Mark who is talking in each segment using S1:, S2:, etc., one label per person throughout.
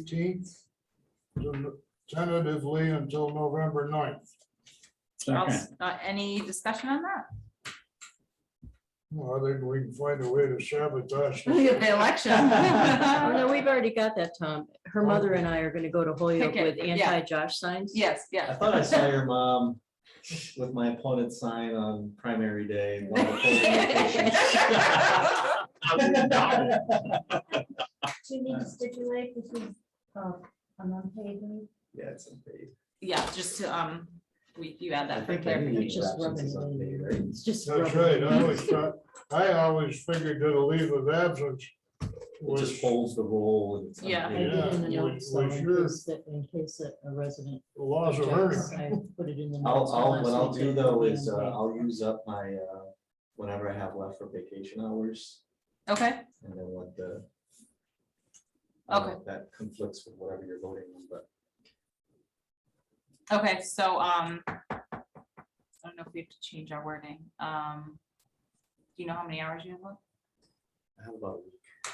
S1: eighteenth, tentatively until November 9th.
S2: I'll
S3: Second.
S2: s- uh, Any discussion on that?
S1: Well, I think we can find a way to sabotage.
S2: The
S4: Oh, no,
S2: election.
S4: we've already got that, Tom. Her mother and I are gonna go to Holyoke
S2: Picket,
S4: with
S2: yeah.
S4: anti-Josh signs.
S2: Yes,
S5: I
S2: yes.
S5: thought I saw your mom with my opponent's sign on primary day. while the polling locations.
S6: Do you need to stipulate this is uh, an unpaid leave?
S5: Yeah, it's unpaid.
S2: Yeah, just to, um, we, you add
S5: I
S2: that for
S5: think every
S2: clarification.
S5: leave of
S4: Just
S5: absence is
S4: rubbing it
S5: unpaid, right?
S4: It's just.
S1: That's
S4: rubber.
S1: right, I always thought, I always figured that a leave of absence
S5: It
S1: was,
S5: just holds the role and it's
S2: Yeah.
S4: I
S5: unpaid.
S4: did in the
S1: Yeah, we-
S4: notes, though,
S1: we
S4: in
S1: sure-
S4: case that- In case that a resident.
S1: laws of
S4: objects,
S1: earth.
S4: I put it in the
S5: I'll,
S4: notes
S5: I'll,
S4: unless
S5: what
S4: we
S5: I'll do
S4: take it
S5: though
S4: away.
S5: is, uh, I'll use up my, uh, whenever I have left for vacation hours
S2: Okay,
S5: and then let the. I don't know if That conflicts with whatever you're voting on, but
S2: okay, so, um, I don't know if we have to change our wording. Um, do you know how many hours you have left?
S5: I have about a week.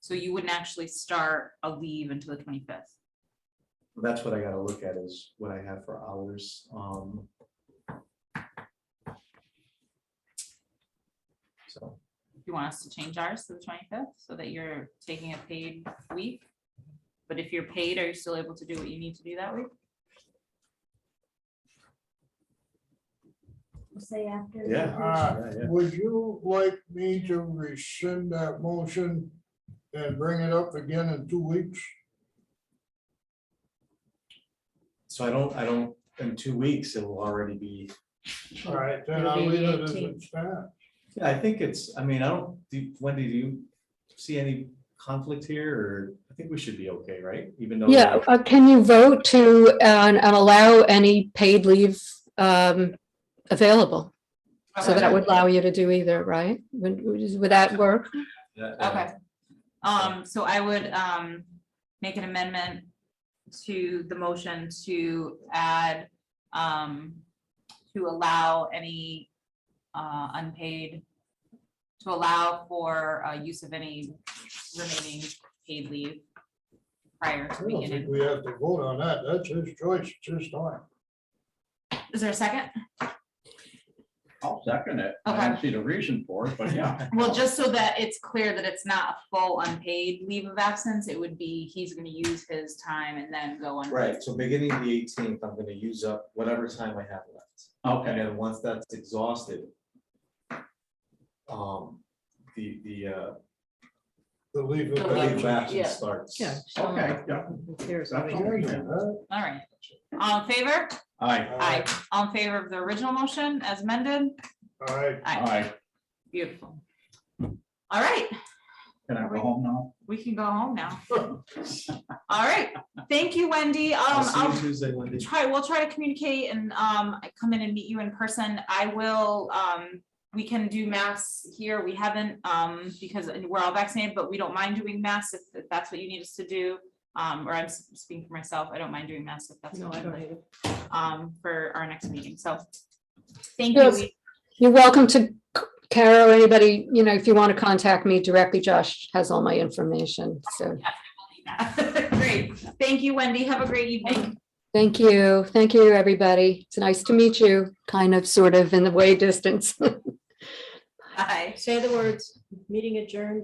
S2: So you wouldn't actually start a leave until the twenty-fifth?
S5: That's what I gotta look at is what I have for hours, um. So,
S2: you want us to change ours to the twenty-fifth so that you're taking a paid week? But if you're paid, are you still able to do what you need to do that week?
S6: Say after.
S5: yeah.
S1: Uh,
S5: yeah, yeah.
S1: Would you like me to rescind that motion and bring it up again in two weeks?
S5: So I don't, I don't, in two weeks, it will already be,
S1: All right, then
S4: It'll
S1: I'll
S4: be
S1: leave it
S4: the
S1: as it
S4: 18th.
S1: stands.
S5: Yeah, I think it's, I mean, I don't, do- Wendy, do you see any conflict here, or I think we should be okay, right? Even though.
S7: Yeah, uh, can you vote to, uh, and and allow any paid leave um, available? So that would allow you to do either, right? Would would that work?
S5: that, uh,
S2: Okay. Um, so I would, um, make an amendment to the motion to add, um, to allow any, uh, unpaid, to allow for, uh, use of any remaining paid leave prior
S1: I
S2: to
S1: don't think
S2: beginning.
S1: we have to vote on that. That's his choice, it's his time.
S2: Is there a second?
S3: I'll second it. I don't see the reason for it, but yeah.
S2: Well, just so that it's clear that it's not a full unpaid leave of absence, it would be, he's gonna use his time and then go on.
S5: Right, so beginning the eighteenth, I'm gonna use up whatever time I have left. And
S3: Okay,
S5: then once that's exhausted, um, the, the, uh,
S1: The leave
S2: The
S1: of
S2: leave
S5: leave of
S1: absence.
S2: yeah.
S5: absence starts.
S4: Yeah. so,
S3: okay,
S2: Uh,
S3: yeah.
S4: who cares?
S3: That's all right.
S1: Huh?
S2: All right, all in favor?
S3: Aye,
S2: Aye. All in favor of the original motion as amended?
S1: All right,
S2: Aye,
S3: aye.
S2: beautiful. All right,
S3: Can I go home now?
S2: we can go home now. All right, thank you, Wendy. Um,
S5: I'll see
S2: I'll
S5: you Tuesday, Wendy.
S2: try, we'll try to communicate and um I come in and meet you in person. I will, um, we can do masks here. We haven't, um, because we're all vaccinated, but we don't mind doing masks if if that's what you need us to do. Um, or I'm s- speaking for myself. I don't mind doing masks if that's
S4: No,
S2: what
S4: I
S2: you
S4: don't
S2: like,
S4: either.
S2: um, for our next meeting. So thank you.
S7: Yes.
S2: We-
S7: You're welcome to c- Kara or anybody, you know, if you want to contact me directly, Josh has all my information. So,
S2: Great. Thank you, Wendy. Have a great evening.
S7: thank you. Thank you, everybody. It's nice to meet you, kind of, sort of, in the way distance.
S2: Bye.
S4: Say the words, meeting adjourned